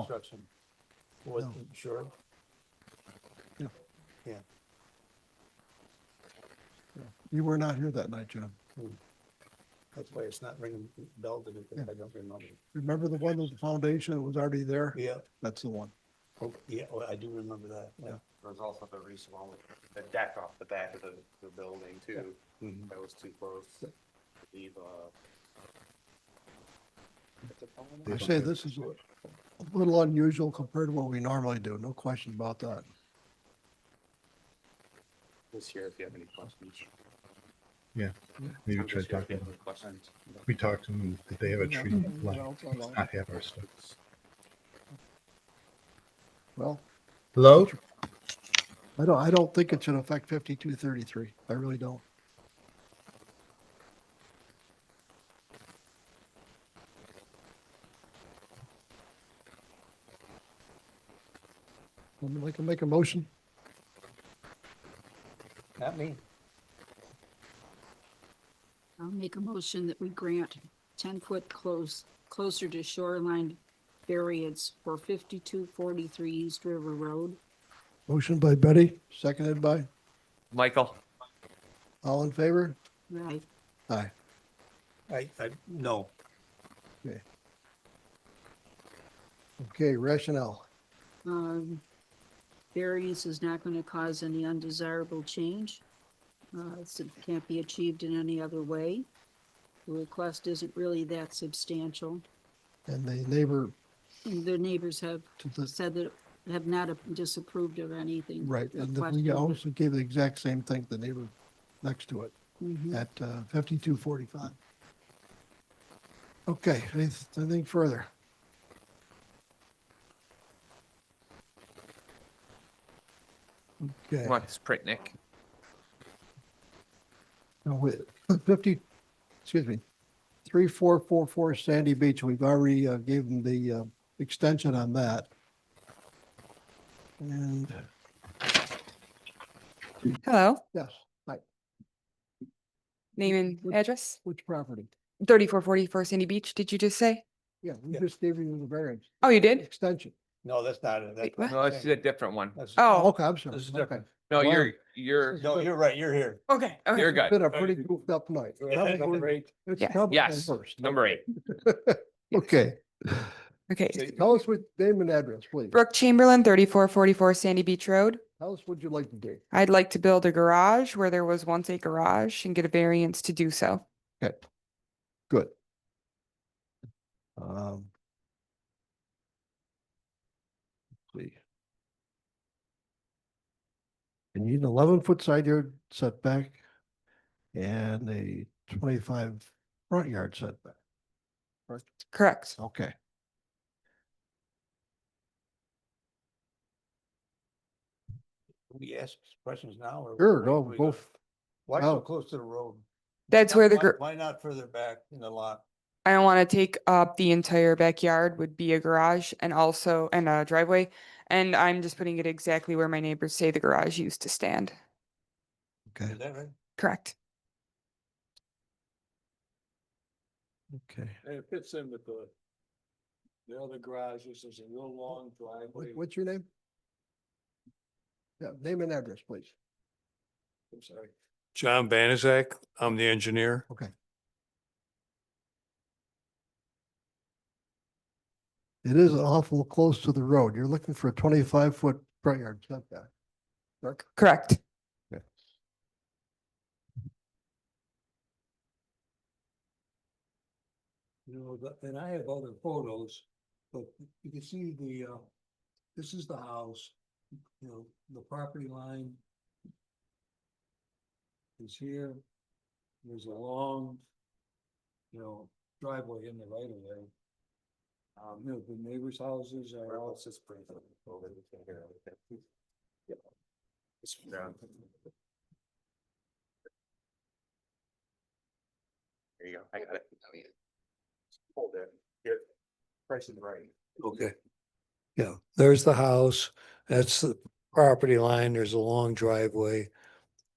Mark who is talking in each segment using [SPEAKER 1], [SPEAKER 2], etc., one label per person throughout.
[SPEAKER 1] construction.
[SPEAKER 2] What,
[SPEAKER 3] No.
[SPEAKER 2] sure?
[SPEAKER 3] Yeah.
[SPEAKER 2] Yeah.
[SPEAKER 3] You were not here that night, John.
[SPEAKER 2] That's why it's not ringing bell to me, because I don't remember.
[SPEAKER 3] Remember the one with the foundation that was already there?
[SPEAKER 2] Yeah,
[SPEAKER 3] That's the one.
[SPEAKER 2] oh, yeah, oh, I do remember that. yeah.
[SPEAKER 1] There's also the recent one with the deck off the back of the, the building too,
[SPEAKER 4] Mm-hmm.
[SPEAKER 2] Mhm.
[SPEAKER 1] that was too close. Leave, uh. what's it called?
[SPEAKER 3] I say this is a little unusual compared to what we normally do, no question about that.
[SPEAKER 1] This year, if you have any questions.
[SPEAKER 4] Maybe
[SPEAKER 1] Tom,
[SPEAKER 4] try
[SPEAKER 1] this year, if you
[SPEAKER 4] talking.
[SPEAKER 1] have any Questions.
[SPEAKER 4] We talked to them, did they have a tree line?
[SPEAKER 3] Well,
[SPEAKER 4] Not have our stuff.
[SPEAKER 5] Hello?
[SPEAKER 3] I don't, I don't think it should affect fifty-two thirty-three. I really don't. Somebody can make a motion?
[SPEAKER 2] Not me.
[SPEAKER 6] I'll make a motion that we grant ten-foot close, closer to shoreline variance for fifty-two forty-three East River Road.
[SPEAKER 3] Motion by Betty, seconded by,
[SPEAKER 7] Michael,
[SPEAKER 3] all in favor?
[SPEAKER 6] Right,
[SPEAKER 3] Aye.
[SPEAKER 2] I, I, no,
[SPEAKER 3] Okay, rationale.
[SPEAKER 6] um, variance is not gonna cause any undesirable change. Uh, it's- it can't be achieved in any other way. The request isn't really that substantial.
[SPEAKER 3] And the neighbor
[SPEAKER 6] And the neighbors have
[SPEAKER 3] to the,
[SPEAKER 6] said that, have not disapproved of anything.
[SPEAKER 3] right, and the- we
[SPEAKER 6] requested.
[SPEAKER 3] also gave the exact same thing to the neighbor next to it
[SPEAKER 6] Mhm.
[SPEAKER 3] at uh, fifty-two forty-five. Okay, any- anything further? Okay,
[SPEAKER 7] Max Pritnick.
[SPEAKER 3] now with fifty, excuse me, three, four, four, four Sandy Beach, we've already uh, gave them the uh, extension on that. And,
[SPEAKER 8] Hello,
[SPEAKER 3] yes,
[SPEAKER 8] name
[SPEAKER 3] Would-
[SPEAKER 8] and address,
[SPEAKER 3] which property?
[SPEAKER 8] thirty-four forty-four Sandy Beach, did you just say?
[SPEAKER 3] Yeah, we
[SPEAKER 2] Yeah.
[SPEAKER 3] just gave you the variance,
[SPEAKER 8] Oh, you did?
[SPEAKER 3] extension.
[SPEAKER 2] no, that's not it.
[SPEAKER 8] Wait,
[SPEAKER 2] That's-
[SPEAKER 8] what?
[SPEAKER 7] No, this is a different one.
[SPEAKER 2] that's-
[SPEAKER 8] Oh,
[SPEAKER 3] Okay, I'm sorry.
[SPEAKER 2] This is
[SPEAKER 3] Okay.
[SPEAKER 2] different.
[SPEAKER 7] No,
[SPEAKER 3] Wow.
[SPEAKER 7] you're, you're,
[SPEAKER 2] No, you're right, you're here.
[SPEAKER 8] okay,
[SPEAKER 7] you're
[SPEAKER 8] okay.
[SPEAKER 3] It's
[SPEAKER 7] good.
[SPEAKER 3] Been a pretty goofed up night. It's
[SPEAKER 8] Yes.
[SPEAKER 3] Cub
[SPEAKER 7] Yes.
[SPEAKER 3] first.
[SPEAKER 7] Number eight.
[SPEAKER 3] Okay,
[SPEAKER 8] Okay,
[SPEAKER 3] tell us what name and address, please.
[SPEAKER 8] Brooke Chamberlain, thirty-four forty-four Sandy Beach Road.
[SPEAKER 3] Tell us what you'd like to do.
[SPEAKER 8] I'd like to build a garage where there was once a garage and get a variance to do so.
[SPEAKER 3] Okay, good. Um. let's See. You need an eleven foot side yard setback and a twenty-five front yard setback.
[SPEAKER 8] Correct.
[SPEAKER 3] Okay.
[SPEAKER 2] We ask questions now or?
[SPEAKER 3] Sure,
[SPEAKER 2] where
[SPEAKER 3] go,
[SPEAKER 2] do we
[SPEAKER 3] go. f-
[SPEAKER 2] Why so
[SPEAKER 3] out.
[SPEAKER 2] close to the road?
[SPEAKER 8] That's where the,
[SPEAKER 2] Why-
[SPEAKER 8] gar-
[SPEAKER 2] Why not further back in the lot?
[SPEAKER 8] I don't want to take up the entire backyard would be a garage and also, and a driveway. And I'm just putting it exactly where my neighbors say the garage used to stand.
[SPEAKER 3] Okay,
[SPEAKER 2] Is that right?
[SPEAKER 8] Correct.
[SPEAKER 3] okay.
[SPEAKER 9] And it fits in with the, the other garages, there's a real long
[SPEAKER 3] What,
[SPEAKER 9] driveway.
[SPEAKER 3] what's your name? Yeah, name and address, please.
[SPEAKER 9] I'm sorry. John Banizak, I'm the engineer.
[SPEAKER 3] Okay. It is awful close to the road. You're looking for a twenty-five foot front yard setback.
[SPEAKER 8] Correct.
[SPEAKER 9] You know, the- and I have other photos, but you can see the, uh, this is the house, you know, the property line is here. There's a long, you know, driveway in the right of way. Um, you know, the neighbors' houses are all.
[SPEAKER 1] Let's just bring it over, we can hear everything. It's down. There you go, I got it. Hold it, here, press it right.
[SPEAKER 9] Okay. Yeah, there's the house, that's the property line, there's a long driveway.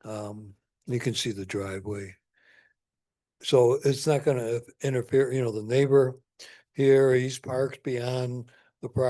[SPEAKER 9] Um, you can see the driveway. So it's not gonna interfere, you know, the neighbor here, he's parked beyond the property